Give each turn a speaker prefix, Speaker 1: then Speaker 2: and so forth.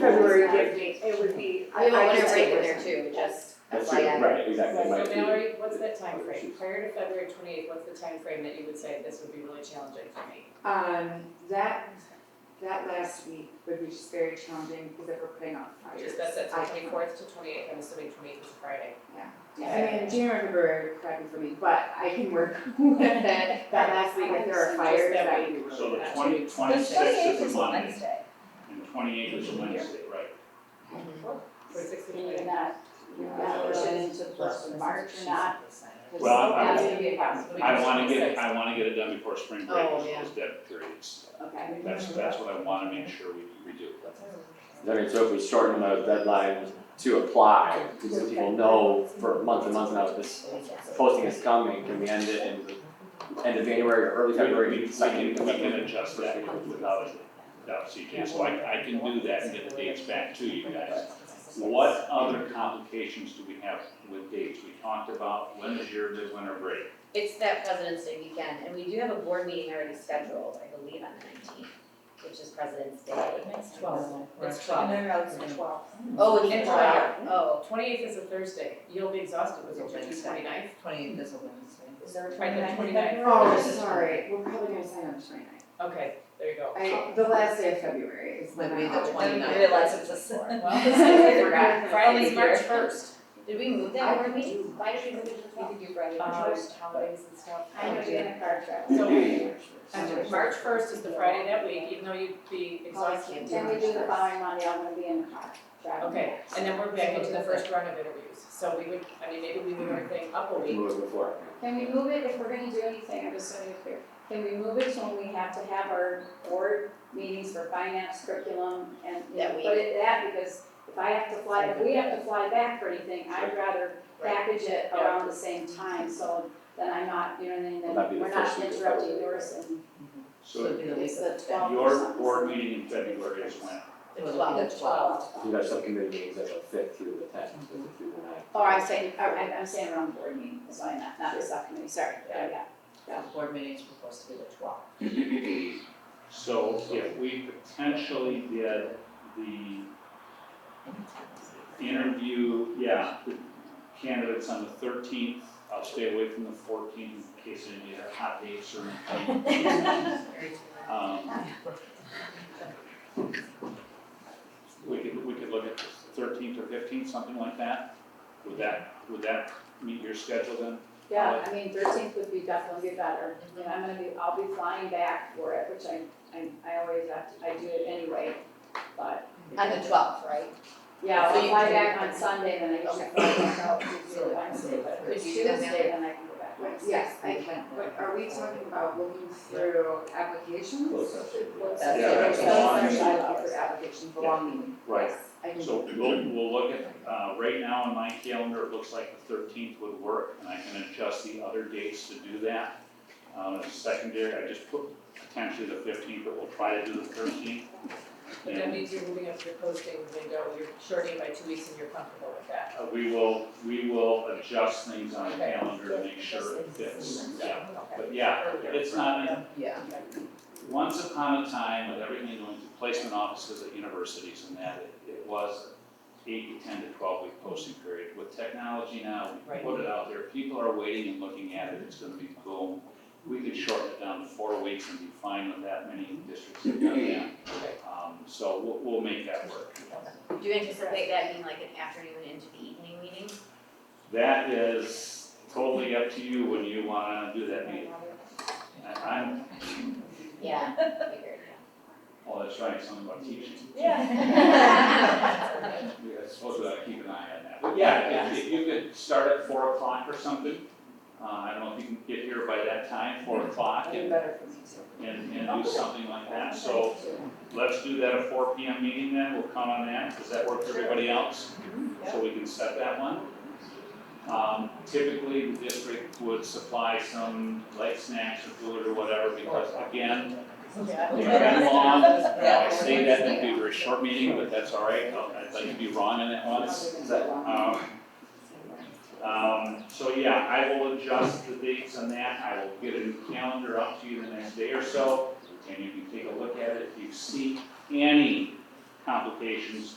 Speaker 1: February would be, it would be.
Speaker 2: We
Speaker 1: I
Speaker 2: might want
Speaker 1: could
Speaker 2: to
Speaker 1: take
Speaker 2: break in
Speaker 1: this.
Speaker 2: there too, just
Speaker 3: That's
Speaker 2: FYI.
Speaker 3: true, right, exactly,
Speaker 4: Right,
Speaker 3: might
Speaker 4: so
Speaker 3: be-
Speaker 4: Mallory, what's that time frame?
Speaker 3: Issues.
Speaker 4: prior to February twenty-eighth, what's the time frame that you would say this would be really challenging for me?
Speaker 1: Um, that, that last week would be just very challenging because they were putting on fires.
Speaker 4: Just that's that
Speaker 1: I-
Speaker 4: twenty-fourth to twenty-eighth, I'm assuming twenty-eighth is a Friday.
Speaker 1: I mean, January, February crappy for me, but I can work with that, that last week if there are fires,
Speaker 4: Just that
Speaker 1: that would be really
Speaker 5: So the
Speaker 1: bad.
Speaker 5: twenty,
Speaker 6: Twenty-eighth
Speaker 5: twenty-sixth is
Speaker 6: is
Speaker 5: a Monday,
Speaker 6: Wednesday,
Speaker 5: and the twenty-eighth is a Wednesday, right?
Speaker 4: Twenty-sixth to
Speaker 6: and you're
Speaker 4: 28th.
Speaker 6: not, you're not pushing into the first of March or not. 'cause
Speaker 5: Well, I-
Speaker 6: That's gonna be a problem.
Speaker 4: So we
Speaker 5: I
Speaker 4: can
Speaker 5: wanna
Speaker 4: do
Speaker 5: get,
Speaker 4: 26th.
Speaker 5: it- I wanna get it done before spring break,
Speaker 2: Oh,
Speaker 5: is
Speaker 2: yeah.
Speaker 5: those dead periods.
Speaker 6: Okay.
Speaker 5: That's, that's what I wanna make sure we, we do.
Speaker 7: I mean, so if we shorten the deadline to apply, so people know for months and months now, this posting is coming, can we end it in end of January or early
Speaker 5: We- we-
Speaker 7: February,
Speaker 5: We
Speaker 7: second?
Speaker 5: can, we can adjust that without, without CJ, so I, I can do that and get the dates back to you guys. What other complications do we have with dates? We talked about, when is your midwinter break?
Speaker 2: It's that President's Day weekend, and we do have a board meeting already scheduled, I believe, on the nineteenth, which is President's Day.
Speaker 4: It's twelve. It's
Speaker 6: No,
Speaker 4: twelve.
Speaker 6: no, no, it's the twelfth.
Speaker 2: Oh,
Speaker 4: And
Speaker 2: it's
Speaker 4: twelve.
Speaker 2: oh,
Speaker 4: Twenty-eighth is a Thursday, you'll be exhausted with your twenty-ninth.
Speaker 8: Twenty-eighth is a Wednesday.
Speaker 6: Is there a
Speaker 4: Right, the
Speaker 6: 29th?
Speaker 4: 29th.
Speaker 1: Oh, sorry, we're probably gonna sign on tonight.
Speaker 4: Okay, there you go.
Speaker 1: I, the last day of February is when
Speaker 8: Would
Speaker 1: I.
Speaker 8: be the
Speaker 1: always-
Speaker 8: 29th.
Speaker 6: I realize it's a sore.
Speaker 4: Well,
Speaker 1: forgot.
Speaker 4: Friday's March first.
Speaker 2: did we move that board meeting? Why did we move it to the
Speaker 6: We
Speaker 2: twelfth?
Speaker 6: could do Friday the
Speaker 4: Um,
Speaker 6: first.
Speaker 4: holidays and stuff.
Speaker 6: I know you're in a car crash.
Speaker 4: So,
Speaker 1: Um,
Speaker 4: March first is the Friday that week, even though you'd be exhausted.
Speaker 6: Then we do the following Monday, I'm gonna be in the car driving.
Speaker 4: Okay, and then we're back into the first round of interviews, so we would, I mean, maybe we move everything up a week.
Speaker 7: Move it before.
Speaker 6: Can we move it, if we're gonna do anything, I'm just gonna be clear, can we move it to when we have to have our board meetings for finance, curriculum, and, you know,
Speaker 2: That week.
Speaker 6: put it that, because if I have to fly, if we have to fly back for anything, I'd rather
Speaker 4: Right.
Speaker 6: package it
Speaker 8: Oh.
Speaker 6: around the same time, so then I'm not, you know, then, then
Speaker 7: That'd be the
Speaker 6: we're not
Speaker 7: first week of
Speaker 6: interrupting
Speaker 7: February.
Speaker 6: yours, and
Speaker 8: So
Speaker 5: So
Speaker 8: it'd be the week
Speaker 6: it's
Speaker 8: of
Speaker 6: the
Speaker 8: the tenth.
Speaker 6: twelfth or
Speaker 5: your
Speaker 6: something.
Speaker 5: board meeting in February is when?
Speaker 8: It would be the twelfth.
Speaker 7: You got subcommittee meetings at the fifth through the tenth, the fifth through the ninth.
Speaker 6: Or Oh, I'm saying, or I'm, I'm saying around board meeting, that's why I'm not, not the subcommittee, sorry, yeah, yeah.
Speaker 8: The board meeting is supposed to be the twelfth.
Speaker 5: So if we potentially did the interview, yeah, the candidates on the thirteenth, I'll stay away from the fourteenth in case any of the hot dates or anything. Um, We could, we could look at thirteenth or fifteenth, something like that. Would that, would that meet your schedule then?
Speaker 6: Yeah, I mean, thirteenth would be definitely be better, and I'm gonna be, I'll be flying back for it, which I, I, I always have to, I do it anyway, but,
Speaker 2: On the twelfth, right?
Speaker 6: yeah,
Speaker 8: So
Speaker 6: I'll
Speaker 8: you
Speaker 6: fly
Speaker 8: can-
Speaker 6: back on Sunday, then I usually fly back out to do it Wednesday, but
Speaker 8: Could
Speaker 6: it's
Speaker 2: you do that now?
Speaker 6: Tuesday, then I can go back
Speaker 1: Wait,
Speaker 6: Wednesday.
Speaker 1: Yes, I can, but are we talking about looking through
Speaker 7: Close
Speaker 1: applications?
Speaker 7: session.
Speaker 8: That's
Speaker 5: Yeah, that's a
Speaker 1: Those
Speaker 5: long
Speaker 1: are
Speaker 6: meeting.
Speaker 1: bylaw for applications, the long meeting.
Speaker 5: Right.
Speaker 1: Yes, I can.
Speaker 5: So we'll, we'll look at, uh, right now in my calendar, it looks like the thirteenth would work, and I can adjust the other dates to do that. Um, as secondary, I just put potentially the fifteenth, but we'll try to do the thirteenth.
Speaker 4: But that
Speaker 5: And
Speaker 4: means you're moving up your posting window, you're shortening by two weeks and you're comfortable with that.
Speaker 5: uh, we will, we will adjust things on the calendar to make sure it fits, yeah. But yeah, it's not,
Speaker 8: Yeah.
Speaker 5: Once upon a time, with everything going through placement offices at universities and that, it, it was eight to ten to twelve week posting period. With technology now, we
Speaker 4: Right.
Speaker 5: put it out there, people are waiting and looking at it, it's gonna be boom. We could shorten it down to four weeks and be fine with that many districts that done that. Um, so we'll, we'll make that work.
Speaker 2: Do you anticipate that being like an afternoon into the evening meeting?
Speaker 5: That is totally up to you when you wanna do that meeting. I, I'm,
Speaker 2: Yeah. Figured,
Speaker 5: oh, that's right, something about teaching.
Speaker 2: yeah.
Speaker 5: Yeah, I suppose we ought to keep an eye on that. But yeah, if, if you could start at four o'clock or something, uh, I don't know if you can get here by that time, four o'clock,
Speaker 1: Even
Speaker 5: and,
Speaker 1: better for me too.
Speaker 5: and, and do something like that. So let's do that at four P M meeting then, we'll count on that, does that work for everybody else? So we can set that one. Um, typically, the district would supply some light snacks or food or whatever, because again, we've been long, I say that, it'd be a very short meeting, but that's all right, I'd like to be wrong on that one.
Speaker 7: Is that
Speaker 5: Um, um, so yeah, I will adjust the dates on that, I will get a new calendar up to you the next day or so, and you can take a look at it, if you see any complications